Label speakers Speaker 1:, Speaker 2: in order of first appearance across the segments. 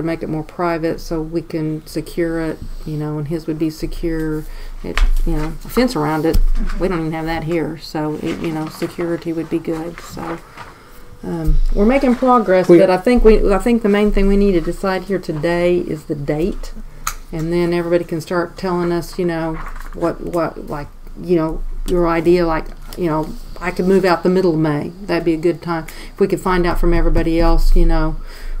Speaker 1: would make it more private so we can secure it, you know, and his would be secure. It, you know, a fence around it. We don't even have that here, so it, you know, security would be good. So um, we're making progress,
Speaker 2: We-
Speaker 1: but I think we, I think the main thing we need to decide here today is the date, and then everybody can start telling us, you know, what what like, you know, your idea like, you know, I could move out the middle of May. That'd be a good time. If we could find out from everybody else, you know,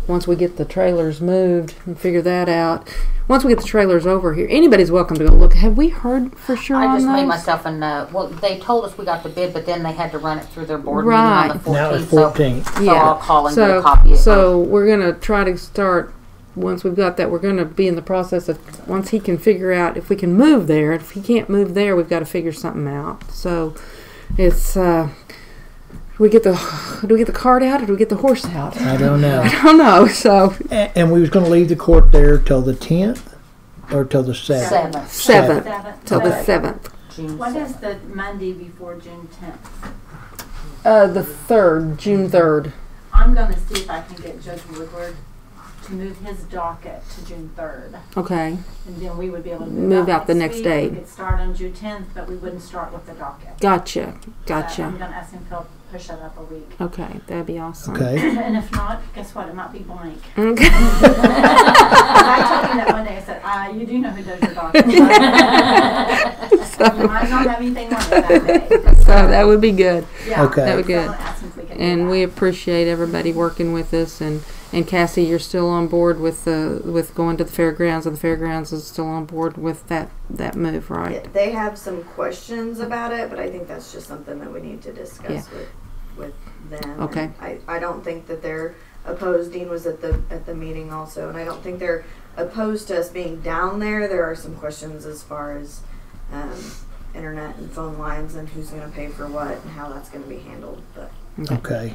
Speaker 1: once we get the trailers moved and figure that out. Once we get the trailers over here, anybody's welcome to go look. Have we heard for sure
Speaker 3: I
Speaker 1: on
Speaker 3: just made
Speaker 1: those?
Speaker 3: myself a note. Well, they told us we got the bid, but then they had to run it through their board meeting on
Speaker 1: Right.
Speaker 3: the 14th.
Speaker 2: Now
Speaker 3: so-
Speaker 2: it's fourteen.
Speaker 3: So, I'll call and get a
Speaker 1: So-
Speaker 3: copy of
Speaker 1: So we're gonna try to start, once we've got that, we're gonna be in the process of, once he can figure out if we can move there. If he can't move there, we've gotta figure something out. So it's, uh, do we get the, do we get the cart out or do we get the horse out?
Speaker 2: I don't know.
Speaker 1: I don't know, so,
Speaker 2: A- And we was gonna leave the court there till the tenth or till the seventh.
Speaker 3: Seventh,
Speaker 1: seventh,
Speaker 4: Seventh.
Speaker 1: till the
Speaker 3: Okay.
Speaker 1: seventh.
Speaker 3: June
Speaker 4: What
Speaker 3: seventh.
Speaker 4: is the Monday before June tenth?
Speaker 1: Uh, the third, June third.
Speaker 4: I'm gonna see if I can get Judge Woodward to move his docket to June third.
Speaker 1: Okay,
Speaker 4: And then we would be able to
Speaker 1: Move
Speaker 4: move
Speaker 1: out
Speaker 4: out
Speaker 1: the next
Speaker 4: next week.
Speaker 1: day.
Speaker 4: We could start on June tenth, but we wouldn't start with the docket.
Speaker 1: gotcha,
Speaker 4: So I'm
Speaker 1: gotcha.
Speaker 4: gonna ask him if he'll push it up a week.
Speaker 1: Okay, that'd be awesome.
Speaker 2: Okay.
Speaker 4: And if not, guess what? It might be blank.
Speaker 1: Okay.
Speaker 4: I told him that one day, I said, uh, you do know who does your docket. right?" You might not have anything on it that day.
Speaker 1: So that would be good.
Speaker 4: Yeah.
Speaker 2: Okay. That
Speaker 1: would
Speaker 4: So I'm
Speaker 1: good.
Speaker 4: gonna ask him if we can do
Speaker 1: and
Speaker 4: that.
Speaker 1: we appreciate everybody working with us and and Cassie you're still on board with the with going to the fairgrounds and the fairgrounds is still on board with that that move right
Speaker 5: Yeah, They have some questions about it, but I think that's just something that we need to discuss with, with them.
Speaker 1: Okay.
Speaker 5: And I, I don't think that they're opposed, Dean was at the, at the meeting also, and I don't think they're opposed to us being down there. There are some questions as far as, um, internet and phone lines and who's gonna pay for what and how that's gonna be handled, but,
Speaker 2: Okay.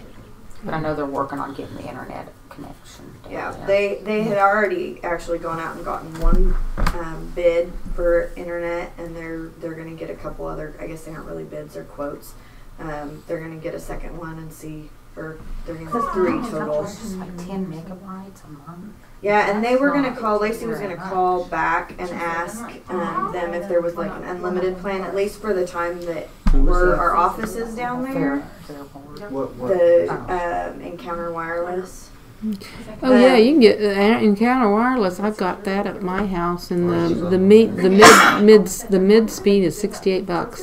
Speaker 3: I know they're working on getting the internet connection. down
Speaker 5: yeah.
Speaker 3: there.
Speaker 5: They, they had already actually gone out and gotten one, um, bid for internet and they're, they're gonna get a couple other, I guess they aren't really bids, they're quotes. Um, they're gonna get a second one and see, or they're gonna have three total.
Speaker 3: It's like 10 megabytes a month.
Speaker 5: Yeah, and they were
Speaker 3: That's
Speaker 5: gonna
Speaker 3: not
Speaker 5: call, Lacey was gonna
Speaker 3: very
Speaker 5: call back and ask, um, them if there was like an unlimited plan, at least for the time that were our offices down there.
Speaker 3: Their board.
Speaker 6: What, what?
Speaker 5: The, um, Encounter Wireless.
Speaker 1: oh yeah you can get uh, encounter wireless I've got that at my house and the the meet the mid mid the mid speed is 68 bucks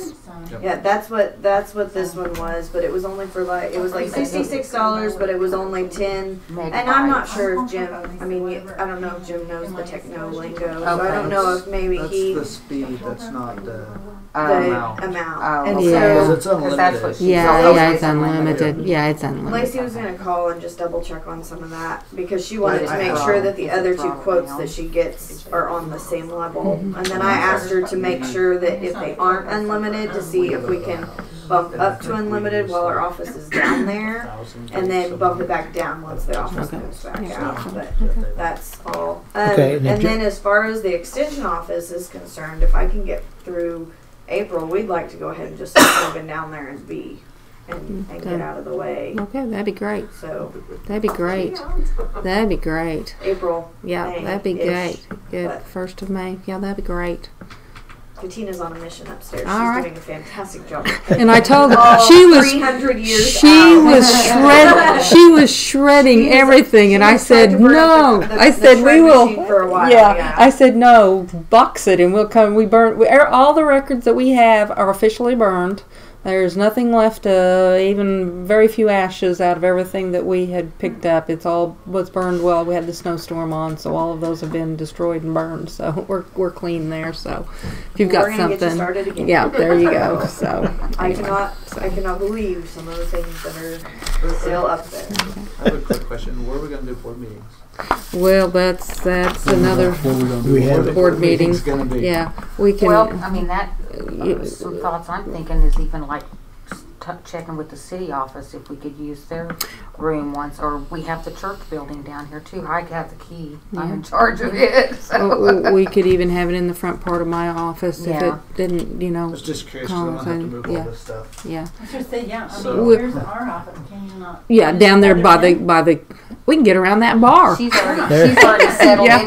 Speaker 5: Yeah, that's what, that's what this one was, but it was only for like, it was like sixty-six dollars, but it was only ten And I'm not
Speaker 3: Megabytes.
Speaker 5: sure if Jim, I mean, you- I don't know if Jim knows the techno lingo, so I
Speaker 3: Okay.
Speaker 5: don't know if maybe
Speaker 6: That's
Speaker 5: he,
Speaker 6: the
Speaker 5: the
Speaker 6: speed, that's not the.
Speaker 3: Um,
Speaker 6: amount.
Speaker 5: amount.
Speaker 3: Oh,
Speaker 5: And
Speaker 3: okay.
Speaker 1: Yeah.
Speaker 5: so
Speaker 6: 'Cause it's
Speaker 3: that's what
Speaker 6: unlimited.
Speaker 3: she-
Speaker 1: yeah
Speaker 3: So
Speaker 1: yeah
Speaker 3: those
Speaker 1: it's
Speaker 3: are
Speaker 1: unlimited yeah it's
Speaker 5: Lacey
Speaker 1: unlimited
Speaker 5: was gonna call and just double check on some of that, because she wanted to
Speaker 6: Right.
Speaker 5: make sure that the other two
Speaker 3: Right.
Speaker 5: quotes that she gets are on the same level. And then I asked her to make sure that if they aren't unlimited, to see if we can bump up to unlimited while our office is down there, and then bump it back down once the office moves back out, but. That's all. Um,
Speaker 2: Okay,
Speaker 5: and
Speaker 2: and if you-
Speaker 5: then as far as the extension office is concerned, if I can get through April, we'd like to go ahead and just move in down there and be and, and get
Speaker 1: Okay.
Speaker 5: out of the way.
Speaker 1: okay that'd be great
Speaker 5: So
Speaker 1: that'd be great that'd be great
Speaker 5: April,
Speaker 1: Yeah,
Speaker 5: May-ish,
Speaker 1: that'd be great. Good.
Speaker 5: but-
Speaker 1: First of May. Yeah, that'd be great.
Speaker 5: Katina's on a mission upstairs.
Speaker 1: All
Speaker 5: She's
Speaker 1: right.
Speaker 5: doing a fantastic job.
Speaker 1: And I told her
Speaker 5: Oh,
Speaker 1: she was
Speaker 5: 300 years
Speaker 1: she
Speaker 5: out.
Speaker 1: was shred she was shredding
Speaker 5: She was-
Speaker 1: everything
Speaker 5: she
Speaker 1: and I
Speaker 5: was trying
Speaker 1: said
Speaker 5: to burn
Speaker 1: no.
Speaker 5: up the- the-
Speaker 1: I
Speaker 5: the
Speaker 1: said we
Speaker 5: shred
Speaker 1: will
Speaker 5: machine for a while,
Speaker 1: yeah.
Speaker 5: yeah.
Speaker 1: I said no, box it and we'll come we burn we, er, all the records that we have are officially burned. There's nothing left, uh, even very few ashes out of everything that we had picked up. It's all was burned well. We had the snowstorm on, so all of those have been destroyed and burned. So we're, we're clean there. So if you've got
Speaker 5: We're gonna
Speaker 1: something,
Speaker 5: get you started again.
Speaker 1: yeah, there you go. So
Speaker 5: I
Speaker 1: anyway.
Speaker 5: cannot I cannot believe some of the things that are still up there.
Speaker 6: I have a quick question. What are we gonna do for meetings?
Speaker 1: Well, that's that's another.
Speaker 2: We
Speaker 6: What are the
Speaker 2: have,
Speaker 1: Board meetings.
Speaker 6: meeting's gonna be?
Speaker 1: Yeah, we can.
Speaker 3: Well, I mean, that,
Speaker 1: you-
Speaker 3: some thoughts I'm thinking is even like t- checking with the city office if we could use their room once, or we have the church building down here too. I have the key. I'm in charge of it,
Speaker 1: w-
Speaker 3: so.
Speaker 1: uh, w- Oh, we could even have it in the front part of my office if
Speaker 3: Yeah.
Speaker 1: it didn't, you
Speaker 6: I
Speaker 1: know.
Speaker 6: was just curious, 'cause I'm gonna have to move
Speaker 1: Yeah.
Speaker 6: all this stuff.
Speaker 1: Yeah,
Speaker 4: Just say, yeah, um, I
Speaker 6: So-
Speaker 4: mean, here's our office, can you not?
Speaker 1: yeah, down there by the by the
Speaker 3: we can get around that bar.
Speaker 1: She's already,
Speaker 7: There.
Speaker 1: she's already settled
Speaker 3: Yeah.
Speaker 1: in.